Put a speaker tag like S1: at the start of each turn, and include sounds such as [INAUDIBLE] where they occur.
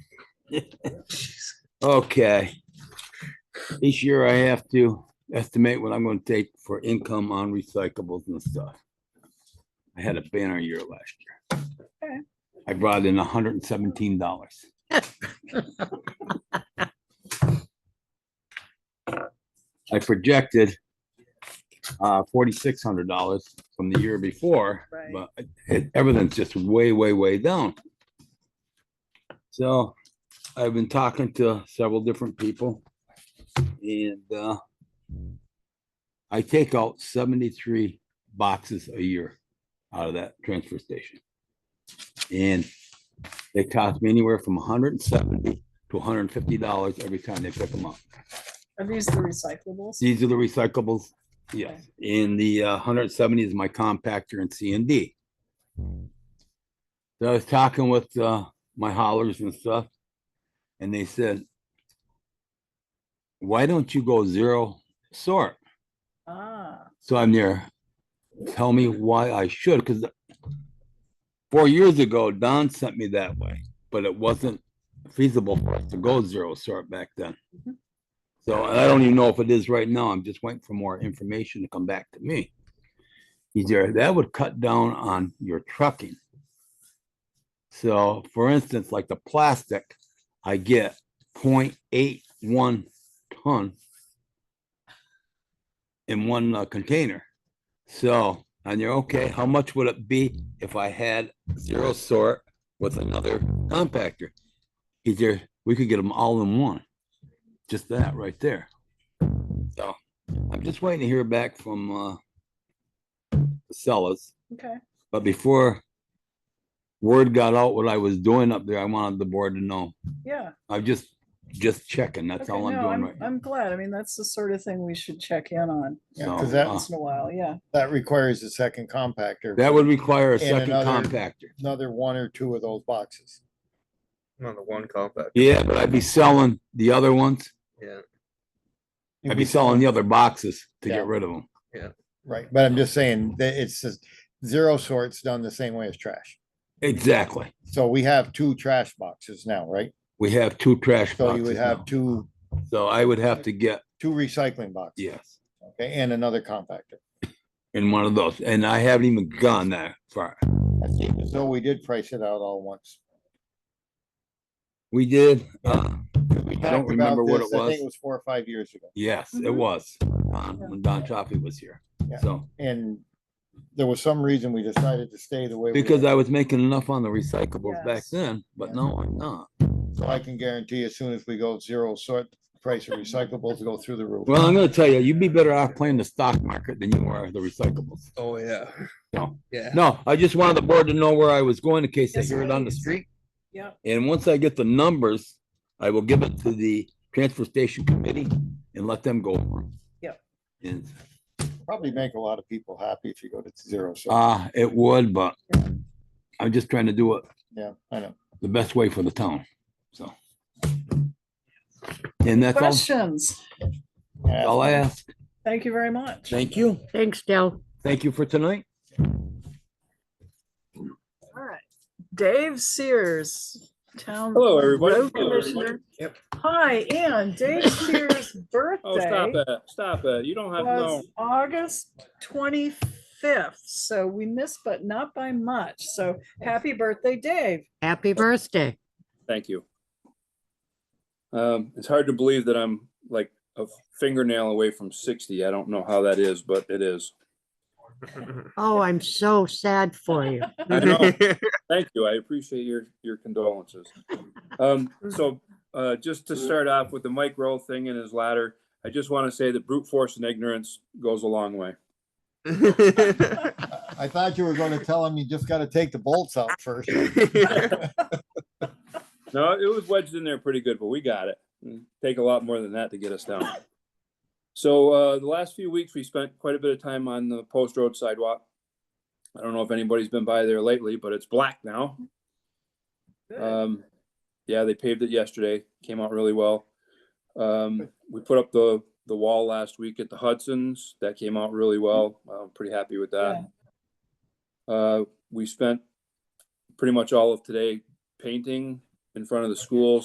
S1: Okay. Each year I have to estimate what I'm gonna take for income on recyclables and stuff. I had a banner year last
S2: Okay.
S1: year. I brought in hundred and seventeen dollars. I projected uh forty-six hundred dollars from the year before,
S2: Right.
S1: but it- everything's just way, way, way down. So I've been talking to several different people. And uh I take out seventy-three boxes a year out of that transfer station. And they cost me anywhere from hundred and seventy to hundred and fifty dollars every time they pick them up.
S2: Are these the recyclables?
S1: These are the recyclables, yes, and the uh, hundred and seventy is my compactor and C and D. So I was talking with uh, my haulers and stuff, and they said, why don't you go zero sort?
S2: Ah,
S1: So I'm there. Tell me why I should, because four years ago, Don sent me that way, but it wasn't feasible for us to go zero sort back then.
S2: Mhm.
S1: So I don't even know if it is right now. I'm just waiting for more information to come back to me. He's there, that would cut down on your trucking. So for instance, like the plastic, I get 0.81 ton in one uh, container. So, and you're okay, how much would it be if I had zero sort with another compactor? He's there, we could get them all in one. Just that right there. So I'm just waiting to hear back from uh the sellers.
S2: okay.
S1: But before word got out what I was doing up there, I wanted the board to know.
S2: Yeah.
S1: I'm just, just checking. That's
S2: Okay,
S1: all I'm
S2: no,
S1: doing right now.
S2: I'm glad. I mean, that's the sort of thing we should check in on
S1: So,
S3: Yeah, 'cause that-
S1: uh,
S2: once in a while. Yeah.
S3: That requires a second compactor.
S1: That would require a
S3: And
S1: second
S3: another-
S1: compactor.
S3: Another one or two of those boxes.
S4: On the one compact,
S1: Yeah, but I'd be selling the other ones.
S4: yeah.
S1: I'd be selling the other boxes to
S3: Yeah.
S1: get rid of them.
S3: Right, but I'm just saying that it's just zero sorts done the same way as trash.
S1: Exactly.
S3: So we have two trash boxes now, right?
S1: We have two trash
S3: So you
S1: boxes
S3: would have
S1: now.
S3: two,
S1: So I would have to get,
S3: two recycling boxes,
S1: yes,
S3: okay, and another compactor.
S1: in one of those. And I haven't even gone that far.
S3: So we did price it out all once.
S1: We did, uh,
S3: We
S1: I don't
S3: talked about
S1: remember what it
S3: this, I think It
S1: was.
S3: was four or five years ago,
S1: Yes, it
S2: Mhm.
S1: was, Don- when Don Chaffee was here.
S3: Mm-hmm. Yeah.
S1: So,
S3: and there was some reason we decided to stay the way. we
S1: because
S3: are.
S1: I was making enough on the recyclables back
S2: Yes.
S1: then, but
S3: Yeah.
S1: no, I'm not.
S3: So I can guarantee as soon as we go zero sort, price of recyclables go through the roof.
S1: Well, I'm gonna tell you, you'd be better off playing the stock market than you are the recyclables.
S4: Oh, yeah.
S1: No.
S4: Yeah.
S1: No, I just wanted the board to know where I was going in case they
S2: Yes,
S1: hear it on the
S2: please.
S1: street.
S2: Yep.
S1: And once I get the numbers, I will give it to the transfer station committee and let them go over. 'em.
S2: Yep.
S1: And,
S3: Probably make a lot of people happy if you go to zero sort.
S1: uh, it would, but I'm just trying to do it
S3: Yeah, I know.
S1: the best way for the town, so. And that's all,
S2: Questions?
S3: Yeah.
S1: all I ask.
S2: Thank you very much.
S1: Thank you.
S5: Thanks, Dell.
S1: Thank you for tonight.
S2: All right. Dave Sears, Town.
S6: Hello, everybody.
S2: Road
S6: Hello, everybody.
S2: Commissioner.
S4: Yep.
S2: Hi, and Dave Sears'
S6: [LAUGHS] Oh, stop
S2: birthday
S6: that, stop that. You don't have, no,
S2: was August twenty-fifth, so we missed, but not by much. So happy birthday, Dave.
S5: Happy birthday.
S6: thank you. Um, it's hard to believe that I'm like a fingernail away from sixty. I don't know how that is, but it is.
S5: Oh, I'm so sad for you.
S6: I know. Thank you. I appreciate your, your condolences. Um, so, uh, just to start off with the Mike Rowe thing and his ladder, I just want to say that brute force and ignorance goes a long way.
S3: I thought you were gonna tell him you just gotta take the bolts out first.
S4: [LAUGHS]
S6: No, it was wedged in there pretty good, but we got it. It'd Take a lot more than that to get us down. So uh, the last few weeks, we spent quite a bit of time on the post road sidewalk. I don't know if anybody's been by there lately, but it's black now. Um, yeah, they paved it yesterday. Came out really well. Um, we put up the the wall last week at the Hudson's. That came out really well. I'm pretty happy with that. Uh, we spent pretty much all of today painting in front of the schools.